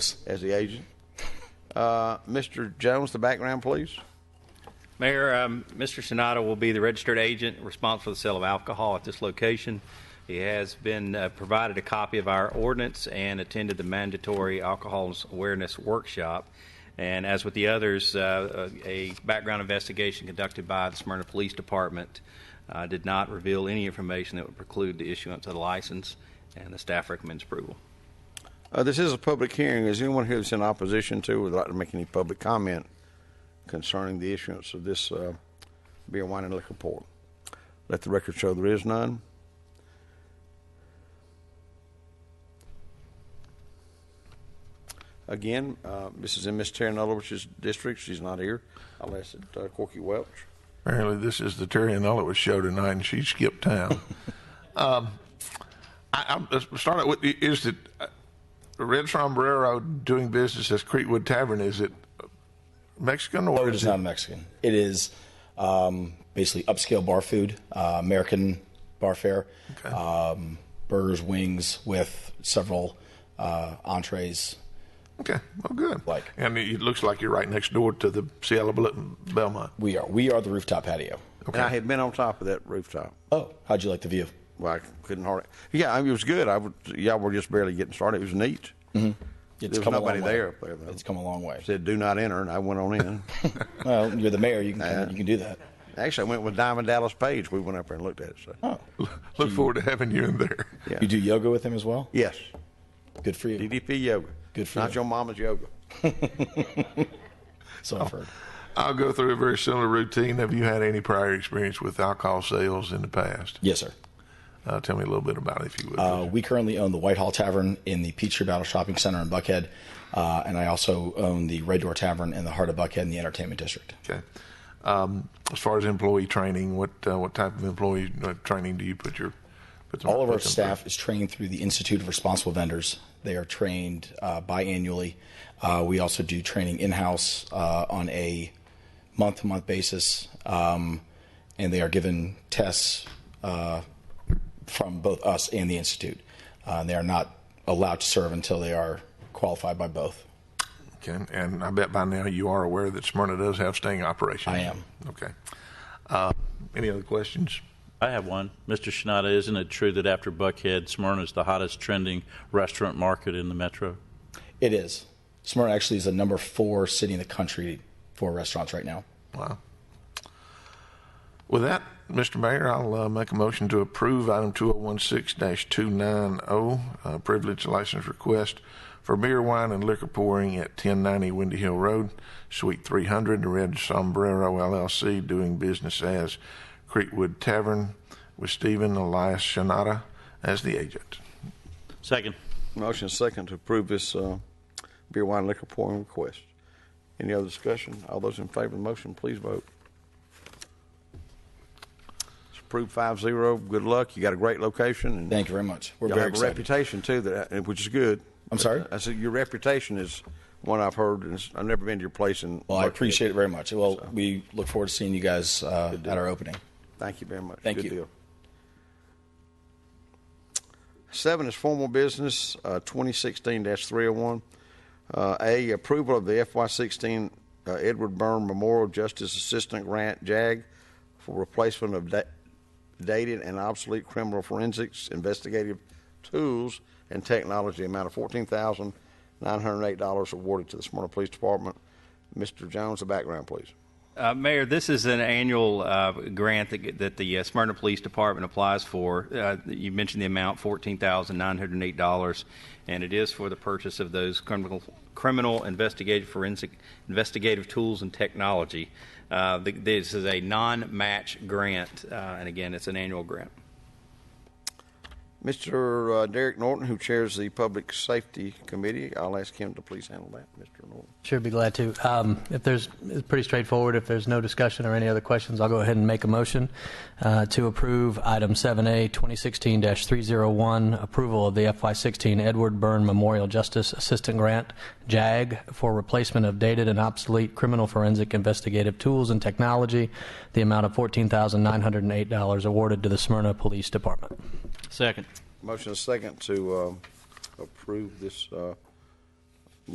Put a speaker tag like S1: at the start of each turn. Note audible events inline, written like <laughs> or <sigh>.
S1: as the agent. Uh, Mr. Jones, the background, please.
S2: Mayor, um, Mr. Sonata will be the registered agent responsible for the sale of alcohol at this location. He has been uh, provided a copy of our ordinance and attended the mandatory alcohol awareness workshop. And as with the others, uh, a a background investigation conducted by the Smyrna Police Department uh, did not reveal any information that would preclude the issuance of the license, and the staff recommends approval.
S1: Uh, this is a public hearing. Is anyone here that's in opposition to, would like to make any public comment concerning the issuance of this uh, beer, wine, and liquor port? Let the record show there is none. Again, uh, this is in Miss Terry Nullwich's district. She's not here. I'll ask it, uh, Corky Welch.
S3: Apparently, this is the Terry and Ellis show tonight, and she skipped town. um,
S4: <laughs>
S3: I, I'm let's start out with is it uh, Red Sombrero doing business as Creekwood Tavern? Is it Mexican or
S4: No, it
S3: is
S4: is not Mexican. It is um, basically upscale bar food, uh, American bar fare, um, burgers, wings with several uh, entrees.
S3: Okay, well, good.
S4: Like-
S3: and it, it looks like you're right next door to the Cielo Bel- Belmont.
S4: We are we are the rooftop patio.
S1: And I had been on top of that rooftop.
S4: Oh, how'd you like the view?
S1: Well, I couldn't hardly. Yeah, I mean, it was good. I would, y'all were just barely getting started. It was neat.
S4: Mm-hmm. It's
S1: There was
S4: come a long
S1: nobody
S4: way.
S1: there up there, though.
S4: It's come a long way.
S1: Said, do not enter, and I went
S4: <laughs>
S1: on in.
S4: Well, you're the mayor. You can come, you can do that.
S1: Actually, I went with Diamond Dallas Page. We went up there and looked at it. So.
S4: Oh,
S3: <laughs> Look forward to having you in there.
S1: Yeah.
S4: you do yoga with him as well.
S1: Yes,
S4: Good for you.
S1: DDP yoga.
S4: Good for
S1: Not
S4: you.
S1: your mama's yoga.
S4: So
S1: Oh.
S4: I've heard.
S3: I'll go through a very similar routine. Have you had any prior experience with alcohol sales in the past?
S4: Yes, sir.
S3: Uh, tell me a little bit about it, if you would.
S4: Uh, we currently own the Whitehall Tavern in the Peachtree Battle Shopping Center in Buckhead, uh, and I also own the Red Door Tavern in the heart of Buckhead in the Entertainment District.
S3: Okay. Um, as far as employee training, what uh, what type of employee uh, training do you put your put them-
S4: All of our
S3: put them
S4: staff is trained through the Institute of Responsible Vendors. They are trained uh, biannually. Uh, we also do training in house uh, on a month to month basis, um, and they are given tests uh, from both us and the Institute. Uh, they are not allowed to serve until they are qualified by both.
S3: through? Okay. And I bet by now you are aware that Smyrna does have staying operations.
S4: I am.
S3: Okay. Uh, any other questions?
S5: I have one. Mr. Shinada, isn't it true that after Buckhead, Smyrna is the hottest trending restaurant market in the metro?
S4: It is. Smyrna actually is the number four city in the country for restaurants right now.
S3: Wow. With that, Mr. Mayor, I'll uh, make a motion to approve item 2016-290, uh, privilege license request for beer, wine, and liquor pouring at 1090 Windy Hill Road, Suite 300, the Red Sombrero LLC, doing business as Creekwood Tavern, with Stephen Elias Shinata as the agent.
S5: Second.
S1: Motion second to approve this uh, beer, wine, liquor pouring request. Any other discussion? All those in favor of the motion, please vote. It's approved five zero. Good luck. You got a great location. And
S4: Thank you very much. We're
S1: Y'all
S4: very
S1: have a
S4: excited.
S1: reputation too, that uh, which is good.
S4: I'm sorry?
S1: I said your reputation is one I've heard, and it's- I've never been to your place. And
S4: Well, I appreciate it very much. Well, we look forward to seeing you guys uh, at our opening.
S1: Thank you very much.
S4: Thank
S1: Good
S4: you.
S1: deal. Seven is formal business, uh, 2016-301. Uh, A, approval of the FY16 uh, Edward Byrne Memorial Justice Assistant Grant, JAG, for replacement of da- dated and obsolete criminal forensics investigative tools and technology, amount of $14,908 awarded to the Smyrna Police Department. Mr. Jones, the background, please.
S2: Uh, Mayor, this is an annual uh, grant that, that the uh, Smyrna Police Department applies for. Uh, you mentioned the amount, fourteen thousand nine hundred eight dollars, and it is for the purchase of those criminal criminal investigative forensic investigative tools and technology. Uh, the, this is a non-match grant, uh, and again, it's an annual grant.
S1: Mr. uh, Derek Norton, who chairs the Public Safety Committee, I'll ask him to please handle that, Mr. Norton.
S6: Sure, be glad to. Um, If there's, it's pretty straightforward. If there's no discussion or any other questions, I'll go ahead and make a motion uh, to approve item 7A, 2016-301, approval of the FY16 Edward Byrne Memorial Justice Assistant Grant, JAG, for replacement of dated and obsolete criminal forensic investigative tools and technology, the amount of $14,908 awarded to the Smyrna Police Department.
S5: Second.
S1: Motion is second to uh, approve this uh,